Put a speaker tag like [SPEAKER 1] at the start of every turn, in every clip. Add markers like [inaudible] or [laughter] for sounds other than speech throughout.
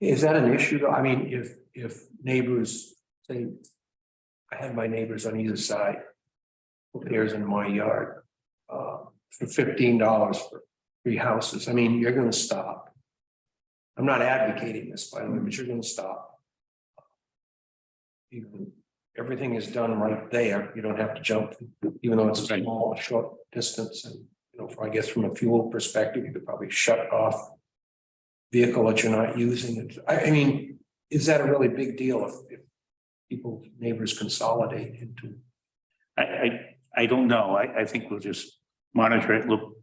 [SPEAKER 1] Is that an issue though? I mean, if, if neighbors say, I have my neighbors on either side. Who cares in my yard? Uh, for fifteen dollars for three houses. I mean, you're gonna stop. I'm not advocating this, by the way, but you're gonna stop. Even, everything is done right there. You don't have to jump, even though it's a
[SPEAKER 2] Right.
[SPEAKER 1] small, short distance and, you know, I guess from a fuel perspective, you could probably shut off vehicle that you're not using. I, I mean, is that a really big deal if, if people, neighbors consolidate into?
[SPEAKER 2] I, I, I don't know. I, I think we'll just monitor it, look,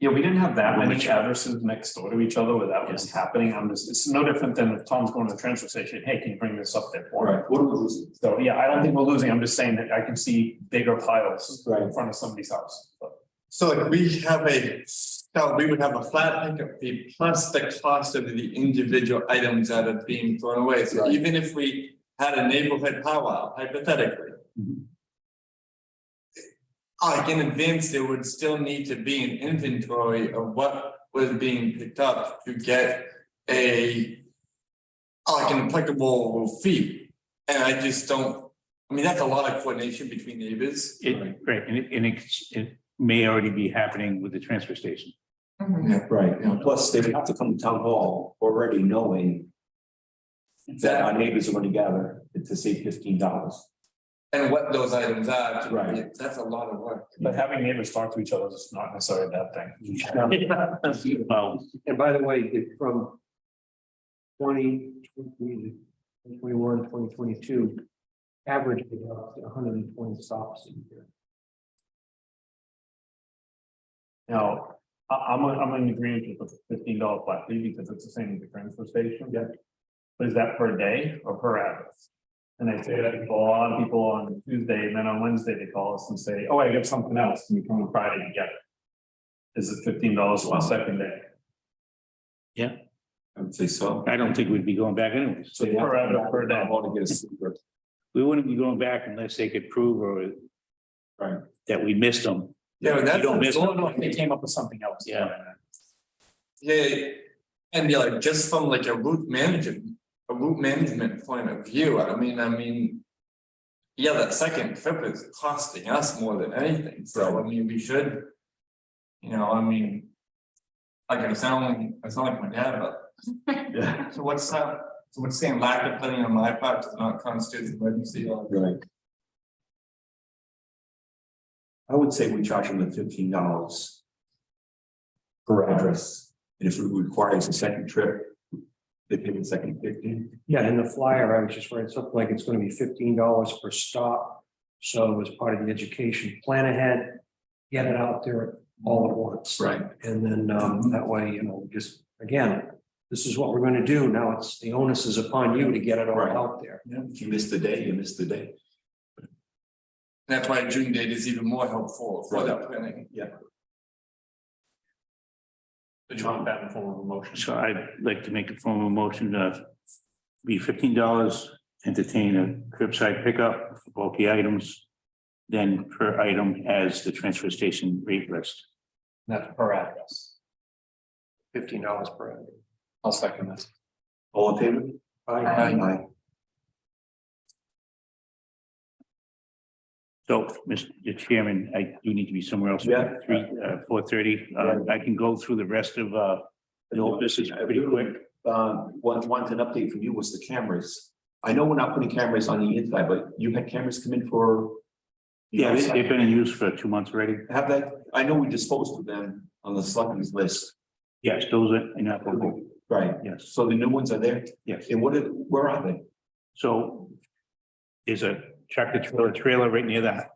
[SPEAKER 3] Yeah, we didn't have that
[SPEAKER 2] Well,
[SPEAKER 3] many
[SPEAKER 2] which-
[SPEAKER 3] addresses next door to each other where that was happening. I'm just, it's no different than if Tom's going to the transfer station, hey, can you bring this up there for me?
[SPEAKER 4] Right, what are we losing?
[SPEAKER 3] So, yeah, I don't think we're losing. I'm just saying that I can see bigger piles
[SPEAKER 4] Right.
[SPEAKER 3] in front of somebody's house. but-
[SPEAKER 5] So if we have a, so we would have a flat pickup fee plus the cost of the individual items that are being thrown away. So
[SPEAKER 4] Right.
[SPEAKER 5] even if we had a neighborhood powwow hypothetically.
[SPEAKER 2] Mhm.
[SPEAKER 5] Like in advance, there would still need to be an inventory of what was being picked up to get a. oh, Like an applicable fee, and I just don't, I mean, that's a lot of coordination between neighbors.
[SPEAKER 2] it, right, and it, and it's, it may already be happening with the transfer station.
[SPEAKER 4] Right, and plus they would have to come to town hall already knowing. That our neighbors are gonna gather to save fifteen dollars.
[SPEAKER 5] And what those items are, to-
[SPEAKER 4] Right.
[SPEAKER 5] that's a lot of work.
[SPEAKER 3] But having neighbors talk to each other is not necessarily a bad thing.
[SPEAKER 2] Well,
[SPEAKER 1] And by the way, it- from 2020, 2021, 2022, average about hundred and twenty stops a year.
[SPEAKER 3] Now, I, I'm, I'm in agreement with the fifteen dollar flat fee because it's the same as the transfer station. Yeah. But is that per day or per address? And I say that a lot of people on Tuesday, and then on Wednesday, they call us and say, oh, I got something else, and we come on Friday and get it. Is it fifteen dollars on second day?
[SPEAKER 4] I would say so.
[SPEAKER 2] I don't think we'd be going back anyways.
[SPEAKER 4] So they have to come back
[SPEAKER 3] Per- per day.
[SPEAKER 4] to town hall to get a secret.
[SPEAKER 2] We wouldn't be going back unless they could prove or
[SPEAKER 4] Right.
[SPEAKER 2] that we missed them.
[SPEAKER 5] Yeah, but
[SPEAKER 2] You don't miss
[SPEAKER 5] that's,
[SPEAKER 2] them.
[SPEAKER 3] They came up with something else.
[SPEAKER 2] Yeah.
[SPEAKER 5] yeah, and yeah, like just from like a route management, a route management point of view, I mean, I mean. Yeah, that second trip is costing us more than anything, so I mean, we should. You know, I mean. Like I sound, I sound like my dad,
[SPEAKER 3] Yeah.
[SPEAKER 5] but [laughs] so what's that, so what's saying lack of planning on my part does not constitute an emergency or?
[SPEAKER 4] Right. I would say we charge them the fifteen dollars. Per address, and if it requires a second trip, they pay the second fifteen.
[SPEAKER 1] Yeah, in the flyer, I was just reading something like it's gonna be fifteen dollars per stop. So as part of the education, plan ahead, get it out there all at once.
[SPEAKER 4] Right.
[SPEAKER 1] And then um that way, you know, just again, this is what we're gonna do. Now it's the onus is upon you to get it all
[SPEAKER 4] Right.
[SPEAKER 1] out there.
[SPEAKER 4] If you miss the day, you miss the day.
[SPEAKER 5] That's why June date is even more helpful for that planning.
[SPEAKER 3] Did you want that in form of a motion?
[SPEAKER 2] So I'd like to make a formal motion to be fifteen dollars, entertain a curbside pickup for bulky items. Then per item as the transfer station rate list.
[SPEAKER 3] That's per address.
[SPEAKER 1] Fifteen dollars per hour.
[SPEAKER 3] I'll second this.
[SPEAKER 4] All in favor?
[SPEAKER 1] Aye.
[SPEAKER 4] Aye.
[SPEAKER 2] So, Mr. Chairman, I do need to be somewhere else.
[SPEAKER 4] Yeah.
[SPEAKER 2] Three, uh, four thirty. Uh, I can go through the rest of, uh, the old business pretty quick.
[SPEAKER 4] Um, one, one, an update from you was the cameras. I know we're not putting cameras on the inside, but you had cameras come in for.
[SPEAKER 2] Yeah, they- they've been in use for two months already.
[SPEAKER 4] Have that, I know we disposed of them on the selectmen's list,
[SPEAKER 2] Yes, those are inoperable.
[SPEAKER 4] right?
[SPEAKER 2] Yes,
[SPEAKER 4] So the new ones are there,
[SPEAKER 2] yes.
[SPEAKER 4] and what, are- where are they?
[SPEAKER 2] So there's a tractor trailer, trailer right near that.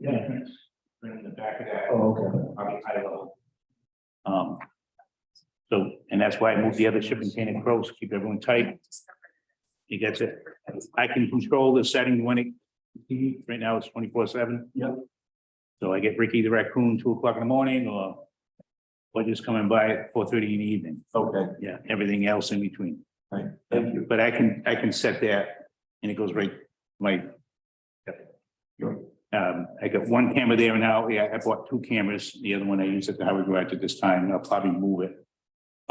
[SPEAKER 2] Yeah.
[SPEAKER 3] In the back of that.
[SPEAKER 4] Oh, okay.
[SPEAKER 2] Um. So, and that's why I moved the other shipping container across, keep everyone tight. You get it. I can control the setting when it, right now it's twenty-four seven. Yep. So I get Ricky the raccoon two o'clock in the morning or or just coming by at four thirty in the evening.
[SPEAKER 4] Okay,
[SPEAKER 2] Yeah, everything else in between.
[SPEAKER 4] thank you.
[SPEAKER 2] But I can, I can set that and it goes right, my. Um, I got one camera there now. Yeah, I bought two cameras. The other one I use at the highway garage at this time. I'll probably move it.